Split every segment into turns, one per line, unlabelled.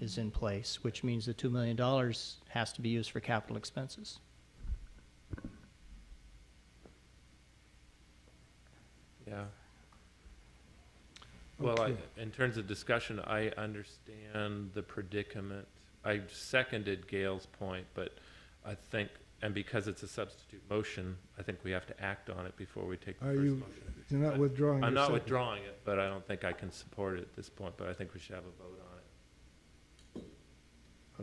is in place, which means the $2 million has to be used for capital expenses.
Yeah. Well, I, in terms of discussion, I understand the predicament. I seconded Gail's point, but I think, and because it's a substitute motion, I think we have to act on it before we take the
Are
first
you-
motion.
You're not withdrawing
I'm
your
not
second.
withdrawing it, but I don't think I can support it at this point, but I think we should have a vote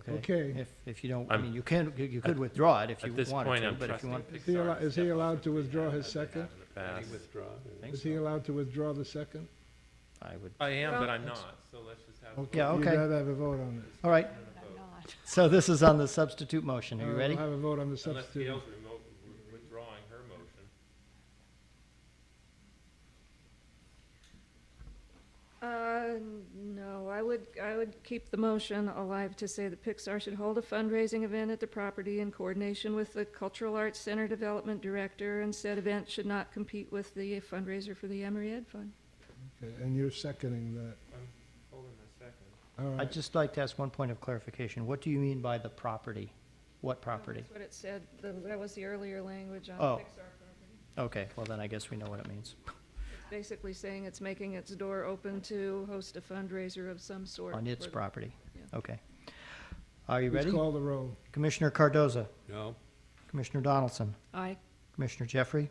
on it.
Okay.
If, if you don't, I
I'm-
mean, you can, you- you could withdraw it if you
At this
wanted
point,
to,
I'm
but if you
trusting
want.
Is he
Pixar.
allo-
to
is he
step up
allowed
as
to
they
withdraw
have-
his
as they have
second?
in the past.
I think
Is he
so.
allowed to withdraw the second?
I would,
I am, but
Well,
I'm not, so let's just have. a vote.
Yeah, okay.
You'd rather have a vote on it.
all right,
I'm not.
so this is on the substitute motion, are
Uh,
you
we'll
ready?
have a vote on the
Unless
substitute.
Gail's remote, withdrawing her motion.
Uh, no, I would, I would keep the motion alive to say that Pixar should hold a fundraising event at the property in coordination with the Cultural Arts Center Development Director, and said event should not compete with the fundraiser for the Emory Ed Fund.
Okay, And you're seconding that.
I'm holding a second.
All
I'd
right.
just like to ask one point of clarification, what do you mean by the property? What property?
That's what it said, The- that was the earlier language on
Oh.
Pixar property.
Okay, well then I guess we know what it means.
Basically saying it's making its door open to host a fundraiser of some sort.
On its
for-
property,
Yeah.
okay. Are you
Please
ready?
call the roll.
Commissioner Cardoza,
No.
Commissioner Donaldson,
Aye.
Commissioner Jeffrey,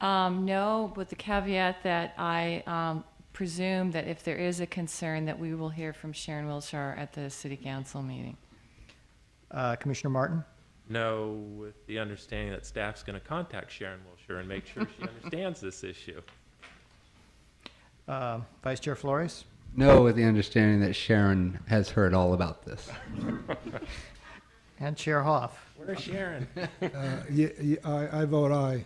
Um, no, with the caveat that I um, presume that if there is a concern, that we will hear from Sharon Wilshire at the city council meeting.
uh, Commissioner Martin,
No, with the understanding that staff's going to contact Sharon Wilshire and make sure she understands this issue.
uh, Vice Chair Flores,
No, with the understanding that Sharon has heard all about this.
and Chair Hoff.
Where's Sharon?
Uh, ye- ye- I I vote aye.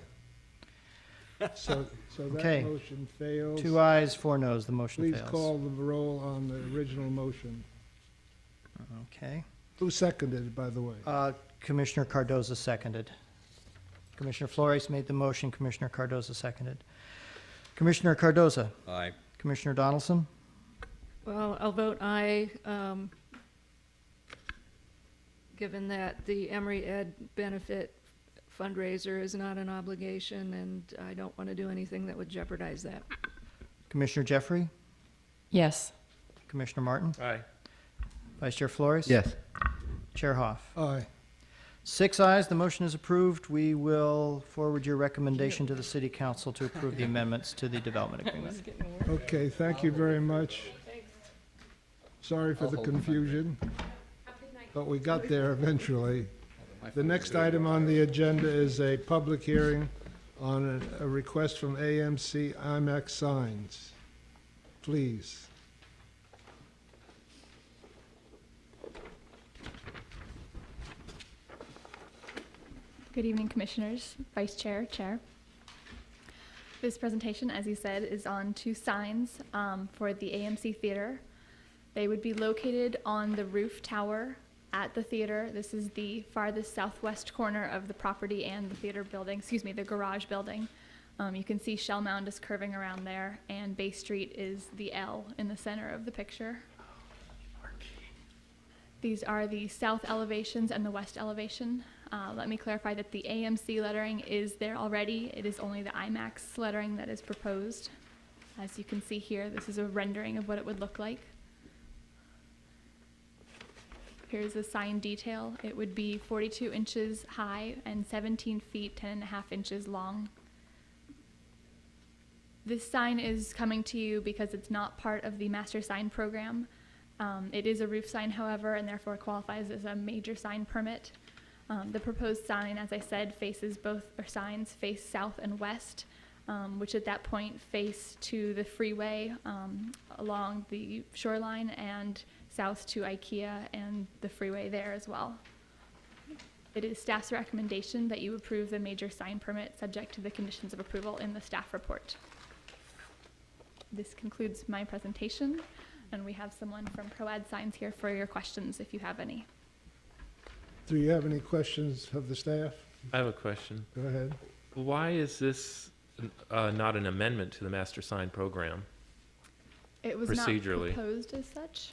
So so
Okay.
that motion fails.
Two ayes, four noes, the motion
Please
fails.
call the roll on the original motion.
Okay.
Who seconded it, by the way?
Uh, Commissioner Cardoza seconded. Commissioner Flores made the motion, Commissioner Cardoza seconded. Commissioner Cardoza,
Aye.
Commissioner Donaldson,
Well, I'll vote aye, um, given that the Emory Ed benefit fundraiser is not an obligation, and I don't want to do anything that would jeopardize that.
Commissioner Jeffrey,
Yes.
Commissioner Martin,
Aye.
Vice Chair Flores.
Yes.
Chair Hoff.
Aye.
Six ayes, the motion is approved. We will forward your recommendation to the city council to approve the amendments to the development agreement.
Okay, thank you very much. Sorry for the confusion, but we got there eventually. The next item on the agenda is a public hearing on a, a request from AMC IMAX Signs. Please.
Good evening, Commissioners, Vice Chair, Chair. This presentation, as you said, is on two signs um, for the AMC Theater. They would be located on the roof tower at the theater. This is the farthest southwest corner of the property and the theater building, excuse me, the garage building. Um, You can see Shell Mound is curving around there, and Bay Street is the L in the center of the picture. These are the south elevations and the west elevation. Uh, let me clarify that the AMC lettering is there already. It is only the IMAX lettering that is proposed. As you can see here, this is a rendering of what it would look like. Here's the sign detail. It would be 42 inches high and 17 feet, 10 and a half inches long. This sign is coming to you because it's not part of the master sign program. Um, it is a roof sign, however, and therefore qualifies as a major sign permit. Um, the proposed sign, as I said, faces both, or signs face south and west, um, which at that point face to the freeway um, along the shoreline and south to IKEA and the freeway there as well. It is staff's recommendation that you approve the major sign permit subject to the conditions of approval in the staff report. This concludes my presentation, and we have someone from ProAd Signs here for your questions if you have any.
Do you have any questions of the staff?
I have a question.
Go ahead.
Why is this uh, not an amendment to the master sign program?
It was
Procedurally.
not proposed as such.